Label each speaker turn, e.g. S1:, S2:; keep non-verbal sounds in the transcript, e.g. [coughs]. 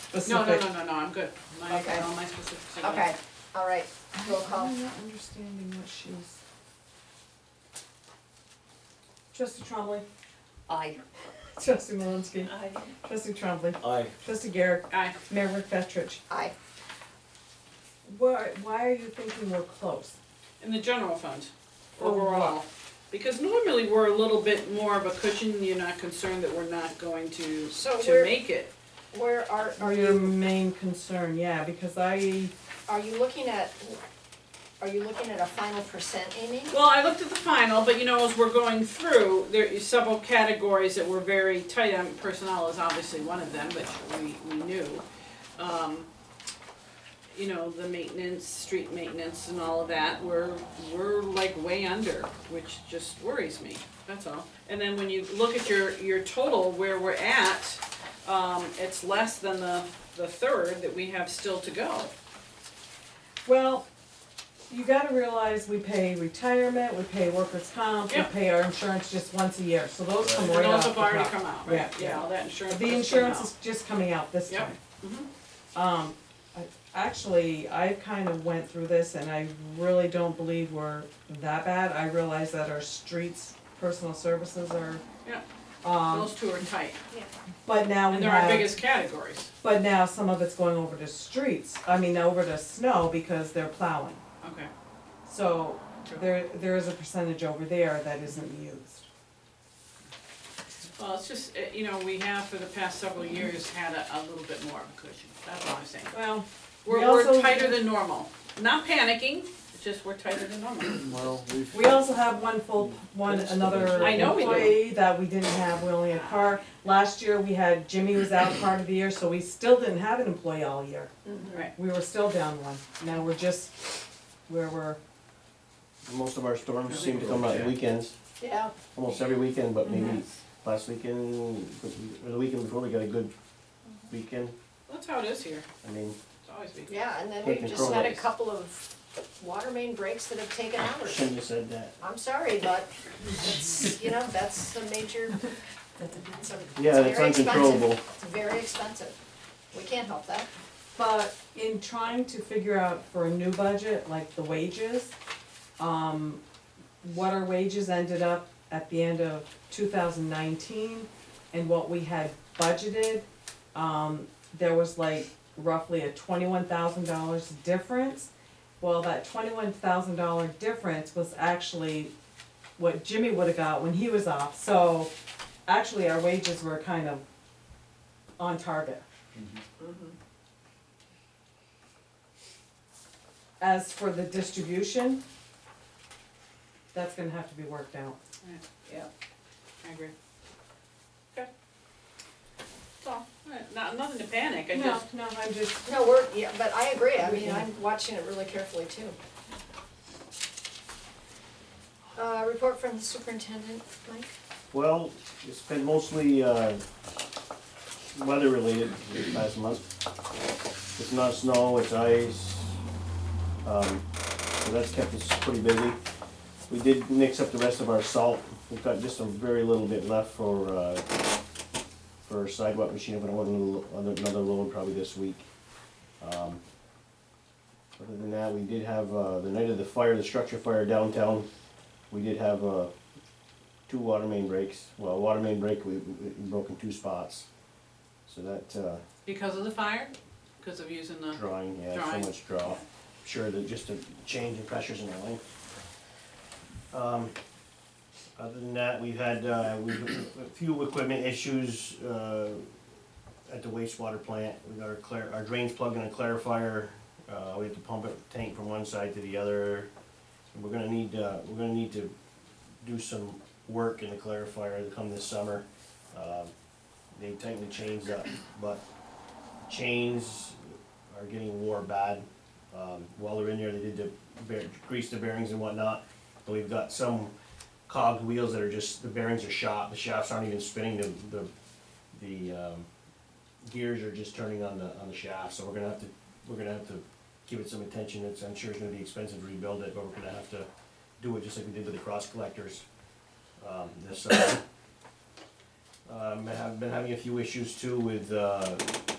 S1: No, no,
S2: specific.
S1: no, no, no, I'm good. My,
S3: Okay.
S1: all my specifics are good.
S3: Okay, all right, roll call.
S2: I'm not understanding what she's.
S4: Trustee Trombley.
S3: Aye.
S2: [laughs] Trustee Malinsky.
S4: Aye.
S2: Trustee Trombley.
S5: Aye.
S2: Trustee Garrett.
S1: Aye,
S2: Mayor McFetrich.
S3: Aye.
S2: Why, why are you thinking we're close?
S1: in the general fund,
S3: Oh,
S2: For what?
S1: overall. Because normally we're a little bit more of a cushion, you're not concerned that we're not going to,
S3: So
S1: to
S3: we're-
S1: make it.
S3: Where are, are
S2: Your
S1: Mm.
S3: you,
S2: main concern, yeah, because I,
S3: are you looking at, are you looking at a final percent, Amy?
S1: Well, I looked at the final, but you know, as we're going through, there are several categories that were very tight on. Personnel is obviously one of them, which we, we knew. Um, You know, the maintenance, street maintenance and all of that, we're, we're like way under, which just worries me, that's all. And then when you look at your, your total, where we're at, um, it's less than the, the third that we have still to go.
S2: well, you gotta realize we pay retirement, we pay workers' comp, we
S1: Yeah.
S2: pay our insurance just once a year, so those come
S1: And
S2: right
S1: those
S2: off the
S1: have already
S2: top.
S1: come out,
S2: Yeah,
S1: right?
S2: yeah.
S1: Yeah, all that insurance. has
S2: The
S1: come
S2: insurance
S1: out.
S2: is just coming out this
S1: Yep. Mm-hmm.
S2: time. Um, I, actually, I kind of went through this and I really don't believe we're that bad. I realize that our streets, personal services are.
S1: Yeah.
S2: Um,
S1: Those two are tight,
S2: but now
S1: and
S2: we
S1: they're our
S2: have,
S1: biggest categories,
S2: but now some of it's going over to streets, I mean, over to snow because they're plowing.
S1: okay.
S2: So there, there is a percentage over there that isn't used.
S1: Well, it's just, uh, you know, we have for the past several years had a, a little bit more of a cushion, that's all I'm saying.
S2: Well,
S1: We're,
S2: We
S1: we're
S2: also-
S1: tighter than normal, not panicking, it's just we're tighter than normal.
S2: [clears throat]
S5: Well, we've.
S2: We also have one full, one, another
S1: I know we do.
S2: employee that we didn't have, we only had Carr. Last year, we had Jimmy was out part of the year, so we still didn't have an employee all year.
S1: Right,
S2: We were still down one. Now we're just where we're,
S5: Most of our storms seem to come out on weekends,
S3: Yeah.
S5: almost every weekend, but maybe
S1: Mhm.
S5: last weekend, or the weekend before, we got a good weekend.
S1: that's how it is here,
S5: I mean,
S1: it's always been.
S3: Yeah, and then
S5: Taking
S3: we've just had a
S5: probates.
S3: couple of water main breaks that have taken hours.
S5: shouldn't have said that.
S3: I'm sorry, but it's, you know, that's a major, it's a, it's
S5: Yeah, it's
S3: very expensive.
S5: uncontrollable.
S3: It's very expensive. We can't help that.
S2: but in trying to figure out for a new budget, like the wages, um, what our wages ended up at the end of two thousand nineteen and what we had budgeted, um, there was like roughly a twenty-one thousand dollars difference. Well, that twenty-one thousand dollar difference was actually what Jimmy would have got when he was off, so actually our wages were kind of on target. As for the distribution, that's gonna have to be worked out.
S1: Yeah, I agree. Okay. That's all, Alright, not, nothing to panic, I just,
S2: no, I'm just.
S3: No, we're, yeah, but I agree, I mean, I'm watching it really carefully too. Uh, report from the superintendent, Mike?
S5: Well, it's been mostly, uh, weather related this past month. It's not snow, it's ice, um, so that's kept us pretty busy. We did mix up the rest of our salt, we've got just a very little bit left for, uh, for sidewalk machine, but I want another, another load probably this week. Um, Other than that, we did have, uh, the night of the fire, the structure fire downtown, we did have, uh, two water main breaks, well, water main break, we, we we broke in two spots. So that, uh,
S1: because of the fire, because of using the,
S5: drawing, yeah, so
S1: Drawing.
S5: much draw. Sure, that just a change in pressures and everything. Um, other than that, we've had, uh, we've, a few equipment issues, uh, at the wastewater plant. We got our clar, our drains plugged in a clarifier, uh, we have to pump it, tank from one side to the other. And We're gonna need, uh, we're gonna need to do some work in the clarifier come this summer. Um, They tightened the chains up, but chains are getting wore bad. Um, while they're in there, they did the bear, grease the bearings and whatnot, but we've got some cogged wheels that are just, the bearings are shot, the shafts aren't even spinning, the, the, the, um, gears are just turning on the, on the shaft, so we're gonna have to, we're gonna have to give it some attention, it's, I'm sure it's gonna be expensive to rebuild it, but we're gonna have to do it just like we did with the cross collectors, [coughs] um, this, uh, um, I have been having a few issues too with, uh,